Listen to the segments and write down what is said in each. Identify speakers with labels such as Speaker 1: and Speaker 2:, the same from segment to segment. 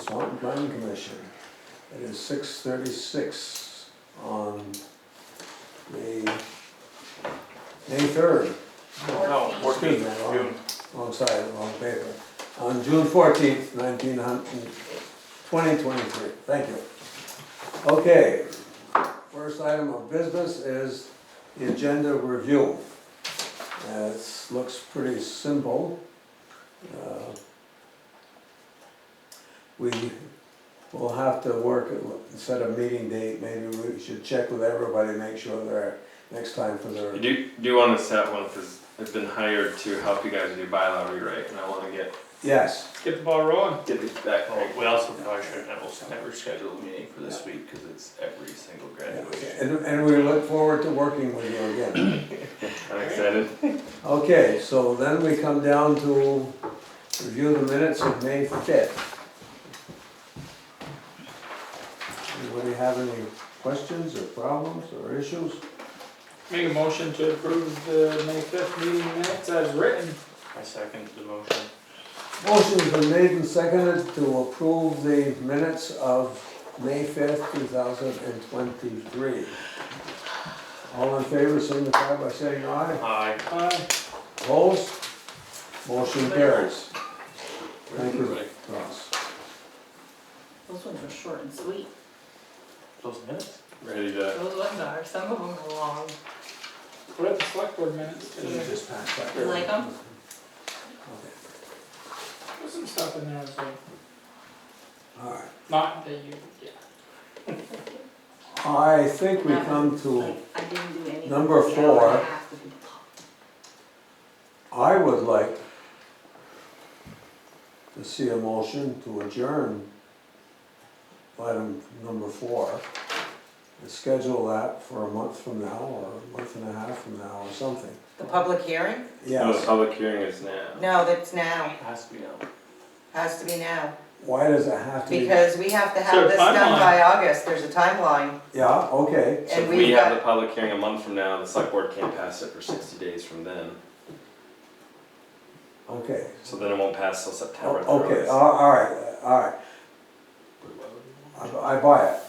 Speaker 1: Swanton Planning Commission. It is six thirty-six on the May third.
Speaker 2: No, fourteenth, June.
Speaker 1: Wrong side, wrong paper. On June fourteenth, nineteen hundred, twenty twenty-three, thank you. Okay, first item of business is the agenda review. Uh, It looks pretty simple. Uh, We will have to work, set a meeting date, maybe we should check with everybody, make sure they're, next time for their.
Speaker 3: You do, do want to set one because I've been hired to help you guys with your bylaw rewrite, and I want to get
Speaker 1: Yes,
Speaker 2: Get the ball rolling.
Speaker 3: get this back.
Speaker 4: Oh, we also probably should never, never schedule a meeting for this week, cause it's every single graduation.
Speaker 1: And, and we look forward to working with you again.
Speaker 3: I'm excited.
Speaker 1: Okay, so then we come down to review the minutes of May fifth. Anybody have any questions or problems or issues?
Speaker 2: Make a motion to approve the May fifth meeting minutes as written.
Speaker 4: I second the motion.
Speaker 1: Motion's been made and seconded to approve the minutes of May fifth, two thousand and twenty-three. All in favor, signify by saying aye.
Speaker 4: Aye.
Speaker 2: Aye.
Speaker 1: Opposed? Motion carries. Thank you, Ross.
Speaker 5: Those ones were short and sweet.
Speaker 4: Those minutes?
Speaker 3: Ready to.
Speaker 5: Those ones are, some of them are long.
Speaker 2: What are the select board minutes?
Speaker 1: Let me just pass that.
Speaker 5: You like them?
Speaker 1: Okay,
Speaker 2: There's some stuff in there, that's like,
Speaker 1: All right.
Speaker 2: not that you, yeah.
Speaker 1: I think we come to,
Speaker 5: I didn't do any.
Speaker 1: number
Speaker 5: an hour and a
Speaker 1: four.
Speaker 5: half would be
Speaker 1: I would like to see a motion to adjourn item number four. and Schedule that for a month from now, or a month and a half from now, or something.
Speaker 6: The public hearing?
Speaker 3: No, the
Speaker 1: Yes,
Speaker 3: public hearing is now.
Speaker 6: No, that's now,
Speaker 4: Has to be now.
Speaker 6: has to be now,
Speaker 1: why does it have to be?
Speaker 6: because we have to
Speaker 2: Sure,
Speaker 6: have this done
Speaker 2: timeline.
Speaker 6: by August, there's a timeline,
Speaker 1: Yeah, okay,
Speaker 3: So if
Speaker 6: and
Speaker 3: we
Speaker 6: we've
Speaker 3: have the
Speaker 6: got,
Speaker 3: public hearing a month from now, the select board can't pass it for sixty days from then.
Speaker 1: okay.
Speaker 3: So then it won't pass till September. at the
Speaker 1: Oh, Okay, Uh,
Speaker 3: earliest.
Speaker 1: all all right, all right, I I buy it.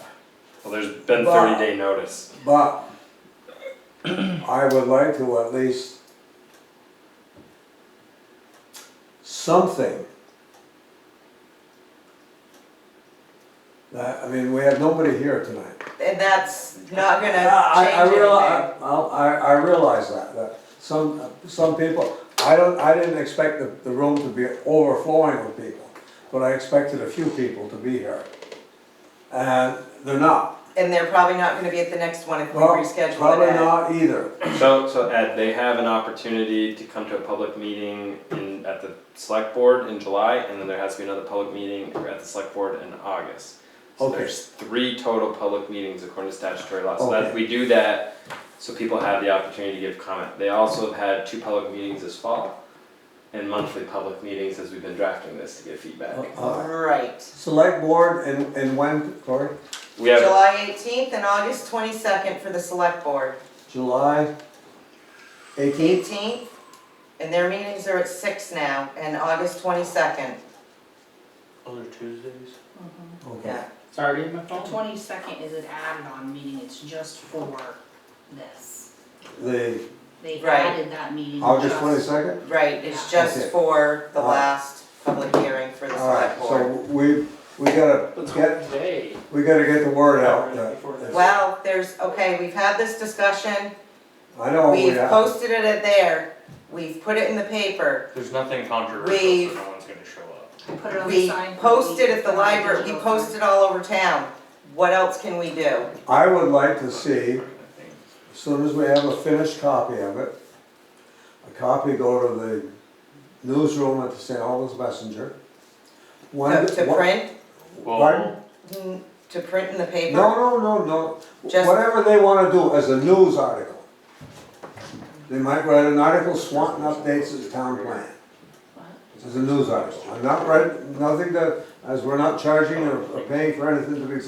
Speaker 3: Well, there's been
Speaker 1: But-
Speaker 3: thirty day notice.
Speaker 1: But I would like to at least something. That, I mean, we have nobody here tonight.
Speaker 6: and that's not gonna
Speaker 1: Uh, I, uh, I
Speaker 6: change anything.
Speaker 1: realize, I, I realize that, that some, some people, I don't, I didn't expect the, the room to be overflowing with people, but I expected a few people to be here. And they're not.
Speaker 6: And they're probably not gonna be at the next one if we
Speaker 1: Well,
Speaker 6: reschedule it.
Speaker 1: Probably
Speaker 6: Ed.
Speaker 1: not either.
Speaker 3: So, so Ed, they have an opportunity to come to a public meeting in, at the select board in July, and then there has to be another public meeting at the select board in August. So
Speaker 1: Okay.
Speaker 3: there's three total public meetings according to statutory law, so that,
Speaker 1: Okay.
Speaker 3: we do that, so people have the opportunity to give comment. They also have had two public meetings this fall, and monthly public meetings as we've been drafting this to get feedback.
Speaker 1: Uh,
Speaker 6: Right,
Speaker 1: Select board and, and when, Cory?
Speaker 3: We have,
Speaker 6: July eighteenth and August twenty-second for the select board,
Speaker 1: July eighteenth?
Speaker 6: eighteenth, and their meetings are at six now, and August twenty-second,
Speaker 4: Other Tuesdays?
Speaker 5: pumped.
Speaker 1: Okay.
Speaker 6: yeah.
Speaker 2: Sorry, my
Speaker 5: The
Speaker 2: phone.
Speaker 5: twenty-second is an added-on meeting, it's just for this.
Speaker 1: The
Speaker 5: They
Speaker 6: Right.
Speaker 5: added that meeting
Speaker 1: August
Speaker 5: just-
Speaker 1: twenty-second?
Speaker 6: Right, it's just
Speaker 1: Okay.
Speaker 6: for the
Speaker 1: All right.
Speaker 6: last public hearing for the
Speaker 1: Alright,
Speaker 6: select
Speaker 1: so
Speaker 6: board.
Speaker 1: we, we gotta
Speaker 2: Let's go
Speaker 1: get,
Speaker 2: today.
Speaker 1: we gotta get the word out. that-
Speaker 2: Before this.
Speaker 6: Well, there's, okay, we've had this discussion,
Speaker 1: I know we
Speaker 6: We've
Speaker 1: have,
Speaker 6: posted it at there, we've put it in the paper,
Speaker 4: There's nothing controversial,
Speaker 6: We've-
Speaker 4: so no one's gonna show up.
Speaker 5: I put it on the
Speaker 6: we
Speaker 5: sign for
Speaker 6: posted at the
Speaker 5: on
Speaker 6: library, we
Speaker 5: digital
Speaker 6: posted all over town. What else can we do?
Speaker 1: I would like to see,
Speaker 4: Nothing.
Speaker 1: as soon as we have a finished copy of it, a copy go to the newsroom at the St. Albans Messenger. When-
Speaker 6: To to
Speaker 1: what-
Speaker 6: print,
Speaker 1: Pardon?
Speaker 4: Well,
Speaker 6: Mm, to print in the paper?
Speaker 1: No, no, no, no,
Speaker 6: Just-
Speaker 1: whatever they wanna do as a news article. They might write an article, Swanton updates its town plan. As a news article, I'm not writing, nothing that, as we're not charging or or paying for anything to be